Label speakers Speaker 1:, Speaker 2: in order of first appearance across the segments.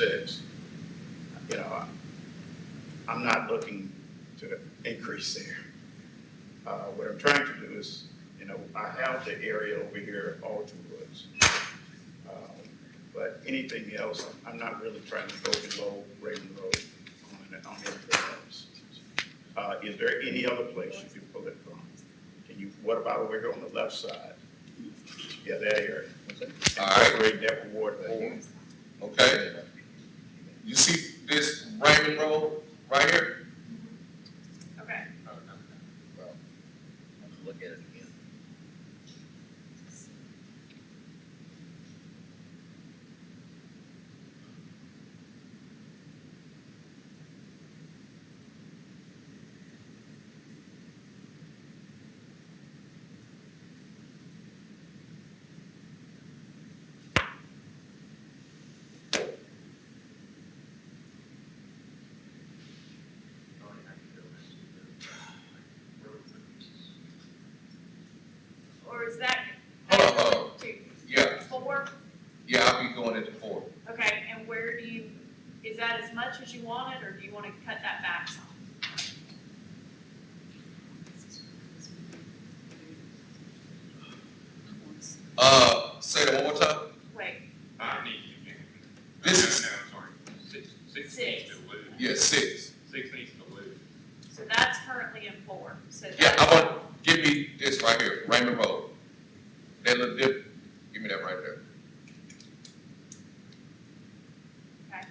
Speaker 1: six, you know, I- I'm not looking to increase there. Uh, what I'm trying to do is, you know, I have the area over here, Alton Woods. Um, But anything else, I'm not really trying to go below Raven Road on, on everything else. Uh, is there any other place you can pull it from? Can you, what about over here on the left side? Yeah, that area.
Speaker 2: All right.
Speaker 1: Incorporate that with Ward Four.
Speaker 2: Okay? You see this Raymond Road right here?
Speaker 3: Okay,
Speaker 4: Look at it again.
Speaker 3: or is that?
Speaker 2: Hold on, hold
Speaker 3: Two,
Speaker 2: Yeah,
Speaker 3: four,
Speaker 2: yeah, I'll be going into four.
Speaker 3: okay, and where do you, is that as much as you wanted, or do you wanna cut that back some?
Speaker 2: Uh, say that one more time.
Speaker 3: Wait,
Speaker 5: I need you, Jim.
Speaker 2: This is-
Speaker 5: No, I'm sorry, six, six
Speaker 3: Six.
Speaker 5: needs to lose,
Speaker 2: Yeah, six.
Speaker 5: six needs to lose.
Speaker 3: so that's currently in four, so.
Speaker 2: Yeah, I
Speaker 3: that's-
Speaker 2: want, give me this right here, Raymond Road. That little dip, give me that right there.
Speaker 3: Okay,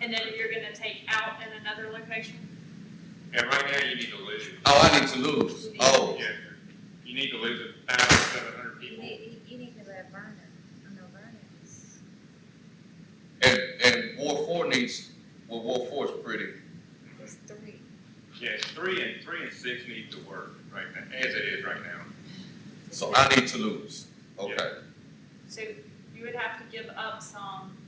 Speaker 3: and then you're gonna take out in another location?
Speaker 5: Yeah, right now you need to lose.
Speaker 2: Oh, I need to lose. Oh,
Speaker 5: Yeah, you need to lose a thousand seven hundred
Speaker 6: You
Speaker 5: people.
Speaker 6: need, you need to let Vernon, I know Vernon is,
Speaker 2: and, and Ward Four needs, well, Ward Four is pretty.
Speaker 6: is three.
Speaker 5: Yeah, three and, three and six need to work right now, as it is right now.
Speaker 2: So I need to lose. Okay.
Speaker 3: So you would have to give up some,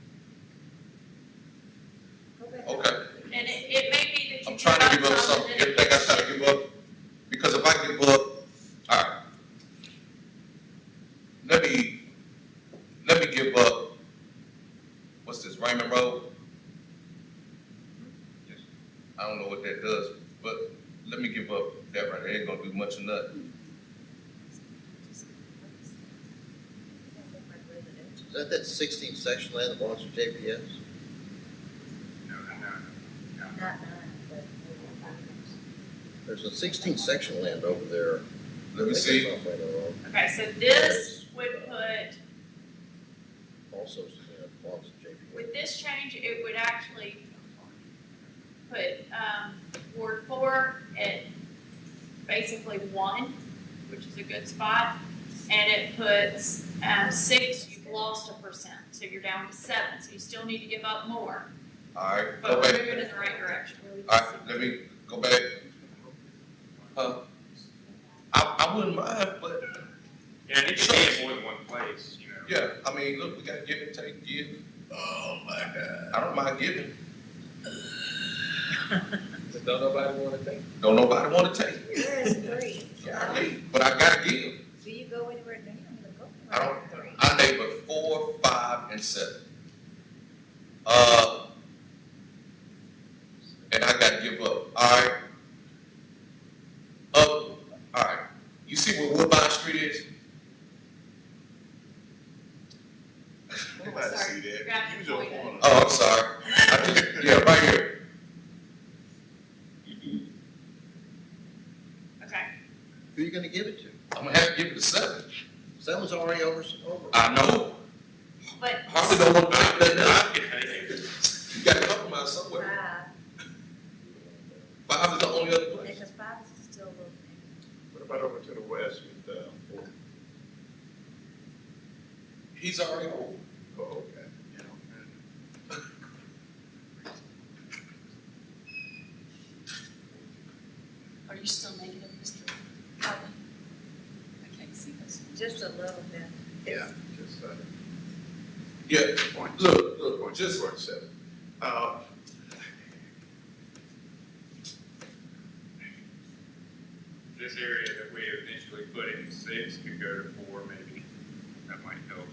Speaker 6: Go back.
Speaker 2: Okay.
Speaker 3: and it, it may be that you.
Speaker 2: I'm trying to give up
Speaker 3: some,
Speaker 2: something,
Speaker 3: and then
Speaker 2: everything I try to give up, because if I give up, alright. Let me, let me give up, what's this, Raymond Road? I don't know what that does, but let me give up that right there, it ain't gonna do much of nothing.
Speaker 4: Is that that sixteen section land that belongs to JPS?
Speaker 5: No, no, no, no.
Speaker 6: Not nine, but maybe
Speaker 4: There's a sixteen section land over there.
Speaker 2: Let me see,
Speaker 4: That's off Raymond Road.
Speaker 3: Okay, so this would put
Speaker 4: Also, you know, belongs to JPS.
Speaker 3: With this change, it would actually put, um, Ward four at basically one, which is a good spot. And it puts, um, six, you've lost a percent, so you're down to seven, so you still need to give up more.
Speaker 2: alright,
Speaker 3: But
Speaker 2: go
Speaker 3: we're
Speaker 2: back,
Speaker 3: moving in the right direction.
Speaker 2: alright, let me go back. Huh? I, I wouldn't mind, but,
Speaker 5: Yeah, it needs to be in more than one place, you know.
Speaker 2: yeah, I mean, look, we gotta give and take, give,
Speaker 4: Oh, my God.
Speaker 2: I don't mind giving.
Speaker 7: Don't nobody wanna take?
Speaker 2: Don't nobody wanna take it.
Speaker 6: Where is three?
Speaker 2: Golly, But I gotta give.
Speaker 6: Do you go anywhere now? You don't go
Speaker 2: I don't-
Speaker 6: anywhere with three.
Speaker 2: I labor four, five, and seven. Uh, and I gotta give up, alright? Up, alright, you see where Woodbine Street is?
Speaker 1: Nobody see
Speaker 3: Sorry,
Speaker 1: that.
Speaker 3: grab
Speaker 1: Use
Speaker 3: your
Speaker 1: your
Speaker 3: point.
Speaker 1: corner.
Speaker 2: Oh, I'm sorry. I think- Yeah, right here,
Speaker 3: Okay,
Speaker 4: Who are you gonna give it to?
Speaker 2: I'm gonna have to give it a seven.
Speaker 4: Someone's already over, over.
Speaker 2: I know,
Speaker 3: but,
Speaker 2: Harvey don't wanna
Speaker 5: I,
Speaker 2: take that
Speaker 5: I
Speaker 2: now.
Speaker 5: can take it.
Speaker 2: You gotta compromise somewhere.
Speaker 6: Five,
Speaker 2: Five is the only other place.
Speaker 6: because five is still a little. bit.
Speaker 1: What about over to the west with, uh, Fort-
Speaker 2: He's already over.
Speaker 1: oh, okay, you know,
Speaker 8: Are you still negative, Mr. Harvey? I can't see this.
Speaker 6: Just a little bit.
Speaker 1: yeah, just, uh,
Speaker 2: Yeah,
Speaker 1: point.
Speaker 2: look, look,
Speaker 1: Point
Speaker 2: just,
Speaker 1: just point seven. Uh,
Speaker 5: This area that we eventually put in six could go to four maybe, at might help.